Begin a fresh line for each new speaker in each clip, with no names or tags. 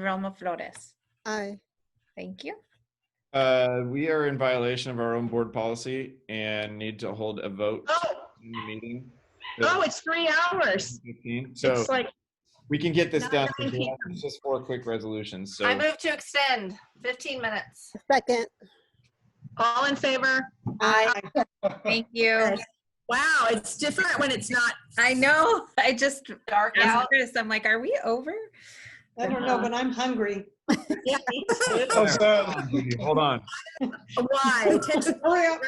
Romo Flores.
Aye.
Thank you.
Uh, we are in violation of our own board policy and need to hold a vote
Oh,
in the meeting.
oh, it's three hours.
15. So
It's like,
we can get this done.
Nine
It's just four quick resolutions. So
I move to extend 15 minutes.
Second.
all in favor?
Aye.
Thank you.
Wow, it's different when it's not.
I know. I just
Dark
asked
out.
Chris. I'm like, are we over?
I don't know, but I'm hungry.
Yeah.
Oh, so- hold on.
Why? Attention-
Hurry up.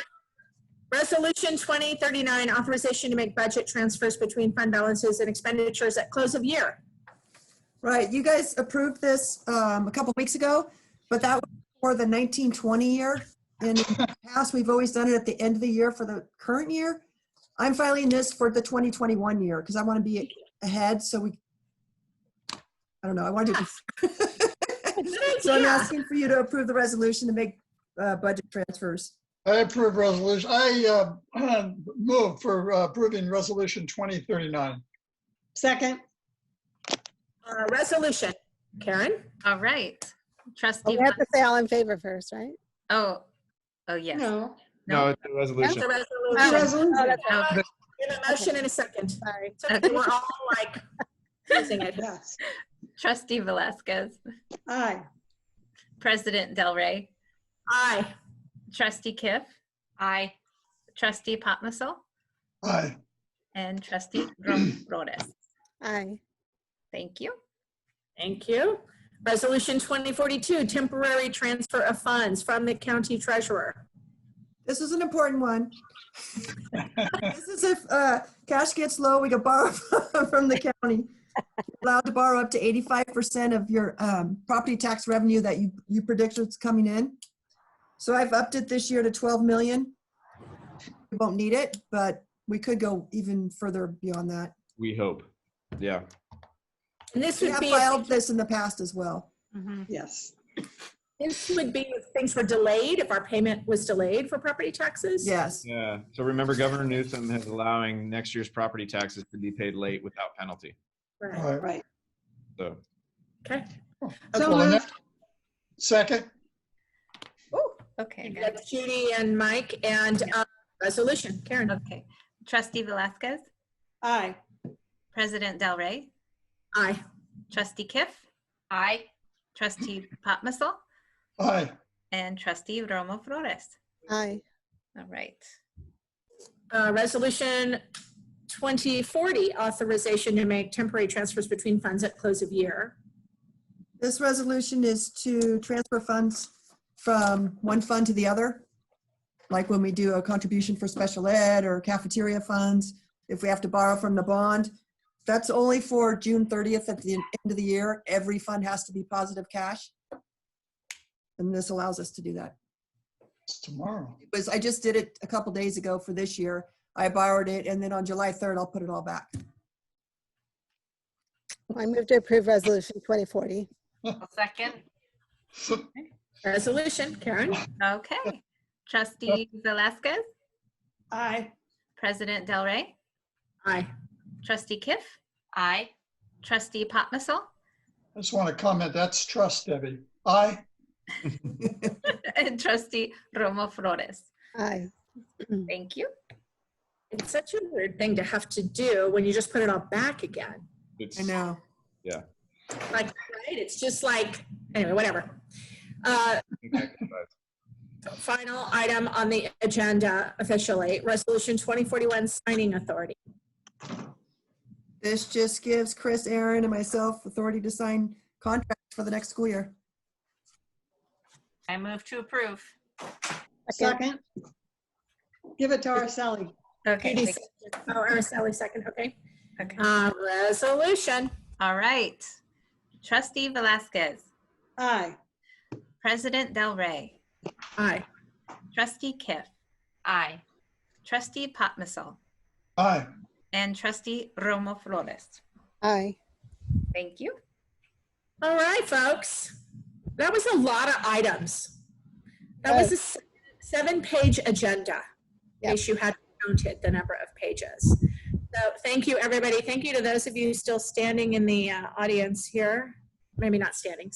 Resolution 2039, authorization to make budget transfers between fund balances and expenditures at close of year.
Right, you guys approved this um, a couple weeks ago, but that was for the 1920 year. In the past, we've always done it at the end of the year for the current year. I'm filing this for the 2021 year because I want to be ahead, so we, I don't know, I want to, so I'm
Yeah.
asking for you to approve the resolution to make uh, budget transfers.
I approve resolution, I uh, move for uh, approving resolution 2039.
Second.
Uh, Resolution. Karen?
All right. Trustee.
We have to
Von-
say all in favor first, right?
Oh, oh, yes.
No.
No, it's a
That's
resolution.
a
Oh,
resolution.
Oh,
Resolution.
that's
oh,
In a motion in a second.
Sorry.
So We're all like, losing it.
Yes.
Trustee Velasquez,
Aye.
President Del Rey,
Aye.
Trustee Kiff,
Aye.
Trustee Potmissel,
Aye.
and Trustee Romo Flores.
Aye.
Thank you.
Thank you. Resolution 2042, temporary transfer of funds from the county treasurer.
This is an important one. This is if uh, cash gets low, we could borrow from the county. You're Allowed to borrow up to 85% of your um, property tax revenue that you, you predict is coming in. So I've upped it this year to 12 million. We won't need it, but we could go even further beyond that.
We hope. Yeah.
And this
We
would
have
be,
filed this in the past as well.
Yes.
this would be if things were delayed, if our payment was delayed for property taxes?
Yes.
Yeah. So remember Governor Newsom is allowing next year's property taxes to be paid late without penalty.
Right.
Aye.
So
Okay.
Well, the next- Second,
Okay.
And
good.
that's Judy and Mike and uh, resolution. Karen?
Okay. Trustee Velasquez,
Aye.
President Del Rey,
Aye.
Trustee Kiff,
Aye.
Trustee Potmissel,
aye.
and Trustee Romo Flores.
Aye.
All right.
Uh, Resolution 2040, authorization to make temporary transfers between funds at close of year.
This resolution is to transfer funds from one fund to the other. Like when we do a contribution for special ed or cafeteria funds, if we have to borrow from the bond. That's only for June 30th at the end of the year. Every fund has to be positive cash. And this allows us to do that.
It's tomorrow.
It was, I just did it a couple days ago for this year. I borrowed it and then on July 3rd, I'll put it all back.
I move to approve resolution 2040.
I'll second.
Resolution. Karen?
Okay. Trustee Velasquez,
Aye.
President Del Rey,
Aye.
Trustee Kiff,
Aye.
Trustee Potmissel,
I just want to comment, that's trust, Debbie. Aye.
and Trustee Romo Flores.
Aye.
Thank you.
It's such a weird thing to have to do when you just put it all back again.
it's,
I know.
Like, right? It's just like, anyway, whatever. Uh, Final item on the agenda officially, Resolution 2041 Signing Authority.
This just gives Chris, Aaron and myself authority to sign contracts for the next school year.
I move to approve.
Second.
Okay.
Judy
thank-
second. Oh, or Sally second, okay.
Okay.
Uh, Resolution.
All right. Trustee Velasquez,
Aye.
President Del Rey,
Aye.
Trustee Kiff,
Aye.
Trustee Potmissel,
Aye.
and Trustee Romo Flores.
Aye.
Thank you.
All right, folks. That was a lot of items. That was a s- seven-page agenda. In
Yep.
case you hadn't counted the number of pages. So thank you, everybody. Thank you to those of you still standing in the uh, audience here. Maybe not standing,